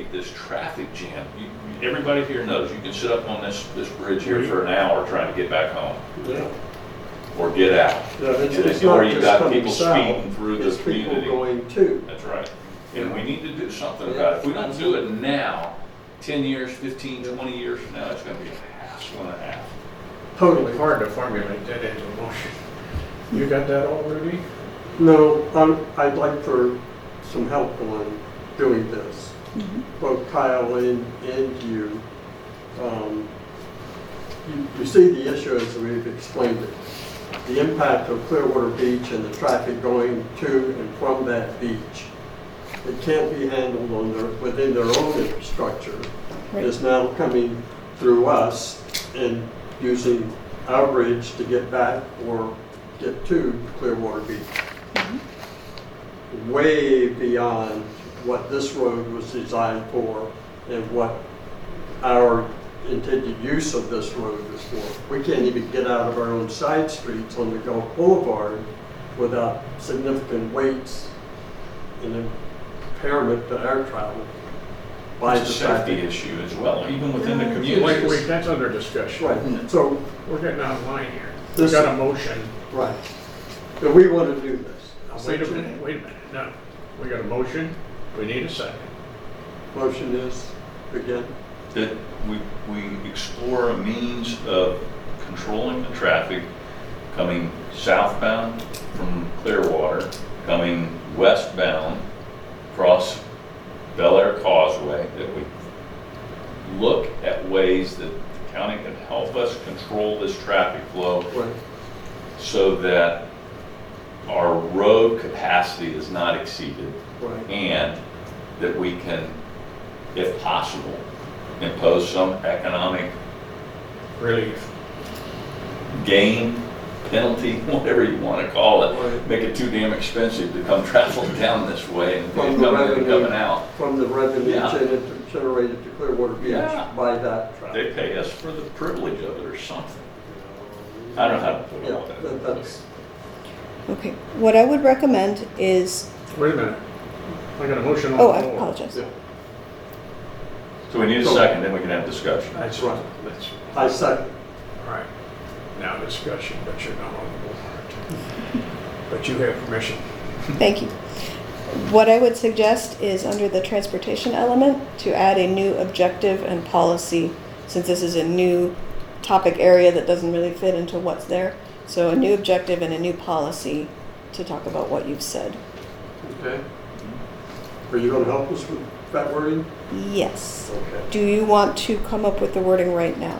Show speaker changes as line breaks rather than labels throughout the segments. eliminate this traffic jam. You- you- Everybody here knows, you can sit up on this, this bridge here for an hour trying to get back home
Yeah,
or get out.
Yeah, it's-
And
it's
then- Or
not
you've
just
got
coming
people
south,
speeding through
it's
the community.
People going to.
That's right. And we need to do something about it. If we don't do it now, 10 years, 15, 20 years from now, it's going to be a hassle and a half.
It's
Totally.
hard to formulate that into a motion. You got that all, Rudy?
No, I'm, I'd like for some help on doing this, both Kyle and, and you. Um, You, you see the issue as we've explained it. The impact of Clearwater Beach and the traffic going to and from that beach. It can't be handled on their, within their own infrastructure. It's now coming through us and using our bridge to get back or get to Clearwater Beach way beyond what this road was designed for and what our intended use of this road is for. We can't even get out of our own side streets on the Gulf Boulevard without significant weights and impairment to our travel by the
It's a safety
traffic.
issue as well, even within the
Wait, wait,
community.
that's under discussion.
Right, so,
We're getting out of line here. We
This-
got a motion.
right. But we want to do this.
Now, Wait a minute, wait a minute, no. We got a motion, we need a second.
Motion is, again,
That we, we explore a means of controlling the traffic coming southbound from Clearwater, coming westbound across Bel Air Causeway, that we look at ways that the county can help us control this traffic flow
right,
so that our road capacity is not exceeded
right,
and that we can, if possible, impose some economic
Really,
gain, penalty, whatever you want to call it,
Right.
make it too damn expensive to come travel down this way and
From
coming
the
in and
revenue.
coming out.
from the revenue
Yeah.
gener- generated to Clearwater
Yeah.
Beach by that
They
traffic.
pay us for the privilege of it or something. I don't know how to put it
Yeah,
all that.
that- that's,
Okay, what I would recommend is,
wait a minute. I got a motion on the
oh,
floor.
I apologize.
yeah,
So we need a second, then we can have discussion.
That's right, that's,
I second,
all right. Now discussion, but you're not on the board. But you have permission.
Thank you. What I would suggest is under the transportation element to add a new objective and policy, since this is a new topic area that doesn't really fit into what's there. So a new objective and a new policy to talk about what you've said.
okay. Are you gonna help us with that wording?
Yes.
Okay.
Do you want to come up with the wording right now,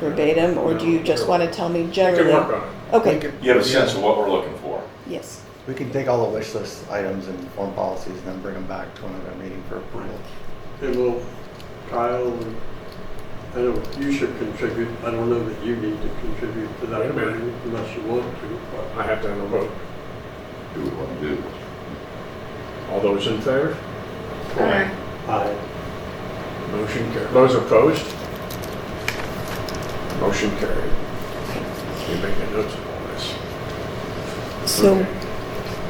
verbatim, or do you just want to tell me
We can work
generally?
on it.
Okay,
You have a sense of what we're looking for.
yes.
We can take all the wish list items and form policies and then bring them back to another meeting for approval.
And will Kyle, and- I know you should contribute, I don't know that you need to contribute to
Wait a
that
minute.
wording unless you want to, but.
I have to have a vote.
Do we want to do this?
All those in favor?
I,
Motion carried. Those opposed? Motion carried. We make a note of all this.
So
Okay.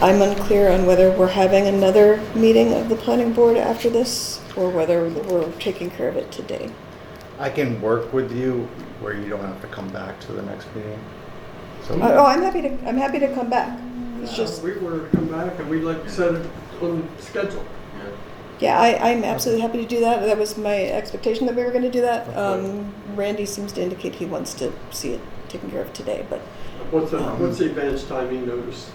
I'm unclear on whether we're having another meeting of the planning board after this or whether we're taking care of it today.
I can work with you where you don't have to come back to the next meeting. So
Oh, oh, I'm happy to, I'm happy to come back. It's just,
we were to come back and we'd like to set it on schedule.
yeah, I, I'm absolutely happy to do that. That was my expectation that we were gonna do that. Um, Randy seems to indicate he wants to see it taken care of today, but
What's the, what's the advance timing notice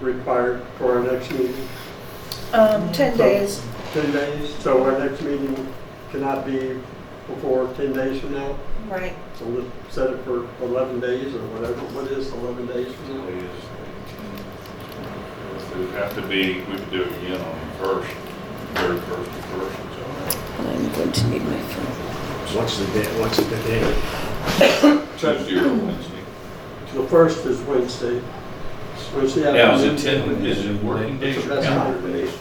required for our next meeting?
Um, 10 days.
10 days, so our next meeting cannot be before 10 days from now?
Right.
So we'll set it for 11 days or whatever, what is 11 days from now?
It would have to be, we could do it again on the first, third, first, first, and so on.
I'm going to need my phone.
What's the date, what's the date?
Tuesday or Wednesday.
The first is Wednesday. It's Wednesday
Now, is
afternoon.
it ten, is it working days or
That's
calendar
fine.
days?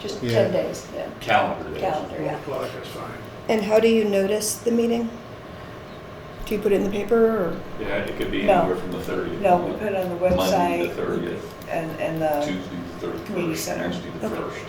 Just
Yeah.
10 days, yeah,
Calendar days.
calendar,
Four
yeah.
o'clock is fine.
And how do you notice the meeting? Do you put it in the paper or?
Yeah, it could be
No.
anywhere from the thirtieth.
No, we put it on the
Monday, the
website
thirtieth,
and, um, and the,
Tuesday, the
Community
thirty-first,
Center.
Wednesday, the
Okay.
first.